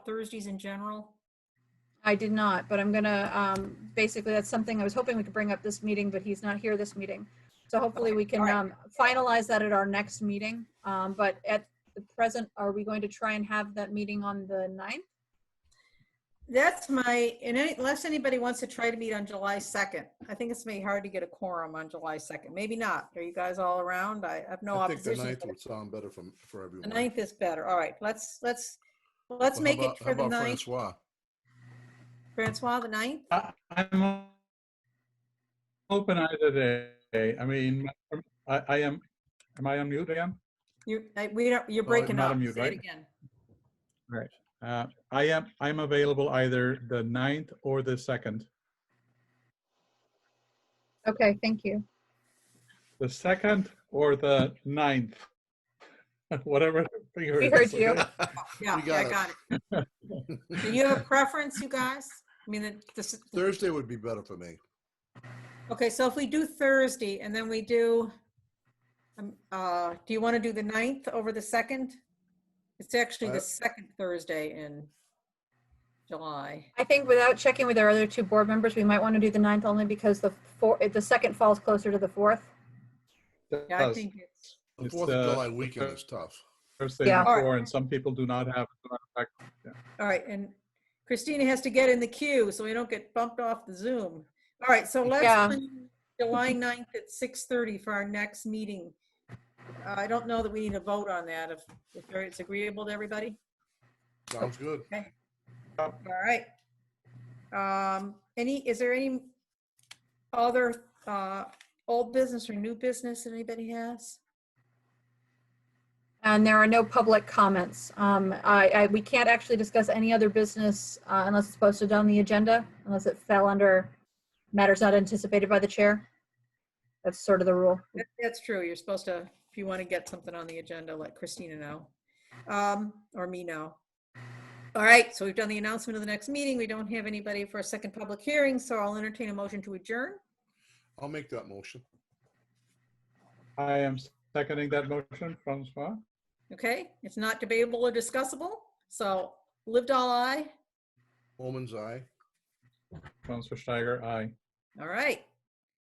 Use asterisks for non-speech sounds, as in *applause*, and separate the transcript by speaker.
Speaker 1: Thursdays in general?
Speaker 2: I did not, but I'm gonna, um, basically, that's something I was hoping we could bring up this meeting, but he's not here this meeting. So hopefully we can,
Speaker 1: all right.
Speaker 2: um, finalize that at our next meeting. Um, but at the present, are we going to try and have that meeting on the ninth?
Speaker 1: That's my, and any- unless anybody wants to try to meet on July 2nd. I think it's maybe hard to get a quorum on July 2nd. Maybe not. Are you guys all around? I have no
Speaker 3: I think the
Speaker 1: opposition.
Speaker 3: ninth
Speaker 1: but
Speaker 3: would sound better for, for everyone.
Speaker 1: The ninth is better. All right, let's, let's, let's
Speaker 3: Well, how
Speaker 1: make it
Speaker 3: about-
Speaker 1: for
Speaker 3: How
Speaker 1: the
Speaker 3: about
Speaker 1: ninth.
Speaker 3: Francois?
Speaker 1: Francois, the ninth?
Speaker 4: I- I'm o- open either day. I mean, I, I am, am I on mute again?
Speaker 1: You, I- we don't, you're
Speaker 3: Oh,
Speaker 1: breaking
Speaker 4: not
Speaker 1: up.
Speaker 4: a mute,
Speaker 1: Say it
Speaker 4: right?
Speaker 1: again.
Speaker 4: Uh, I am, I'm available either the 9th or the 2nd.
Speaker 2: Okay, thank you.
Speaker 4: The 2nd or the 9th. *laughs* Whatever. figure
Speaker 2: We
Speaker 4: it
Speaker 2: heard
Speaker 4: is,
Speaker 2: you.
Speaker 4: okay?
Speaker 1: Yeah,
Speaker 3: You
Speaker 1: yeah, I
Speaker 3: got
Speaker 1: got it.
Speaker 3: *laughs*
Speaker 1: Do you have a preference, you guys? I mean, it- this,
Speaker 3: Thursday would be better for me.
Speaker 1: okay, so if we do Thursday and then we do, um, uh, do you want to do the ninth over the second? It's actually
Speaker 3: Uh,
Speaker 1: the second Thursday in July.
Speaker 2: I think without checking with our other two board members, we might want to do the ninth only because the four, the second falls closer to the fourth.
Speaker 1: Yeah, I
Speaker 4: Does
Speaker 1: think it's,
Speaker 3: The
Speaker 4: It's,
Speaker 3: Fourth of
Speaker 4: uh,
Speaker 3: July weekend is tough.
Speaker 4: Thursday
Speaker 2: Yeah.
Speaker 4: before, and some people do not have. do not have-
Speaker 1: all right, and Christina has to get in the queue so we don't get bumped off the Zoom. All right, so let's
Speaker 2: Yeah.
Speaker 1: plan July 9th at 6:30 for our next meeting. Uh, I don't know that we need a vote on that, if, if it's agreeable to everybody.
Speaker 3: Sounds good.
Speaker 1: All right. Um, Any, is there any other uh old business or new business that anybody has?
Speaker 2: And there are no public comments. Um, I, I, we can't actually discuss any other business uh, unless it's posted on the agenda, unless it fell under matters not anticipated by the chair. That's sort of the rule.
Speaker 1: That- That's true. You're supposed to, if you want to get something on the agenda, let Christina know. Um, or me know. All right, so we've done the announcement of the next meeting. We don't have anybody for a second public hearing, so I'll entertain a motion to adjourn.
Speaker 3: I'll make that motion.
Speaker 4: I am seconding that motion, Francois.
Speaker 1: Okay, it's not debatable or discussable, so lived all I.
Speaker 3: Woman's eye.
Speaker 4: Francois Steiger, aye.
Speaker 1: All right,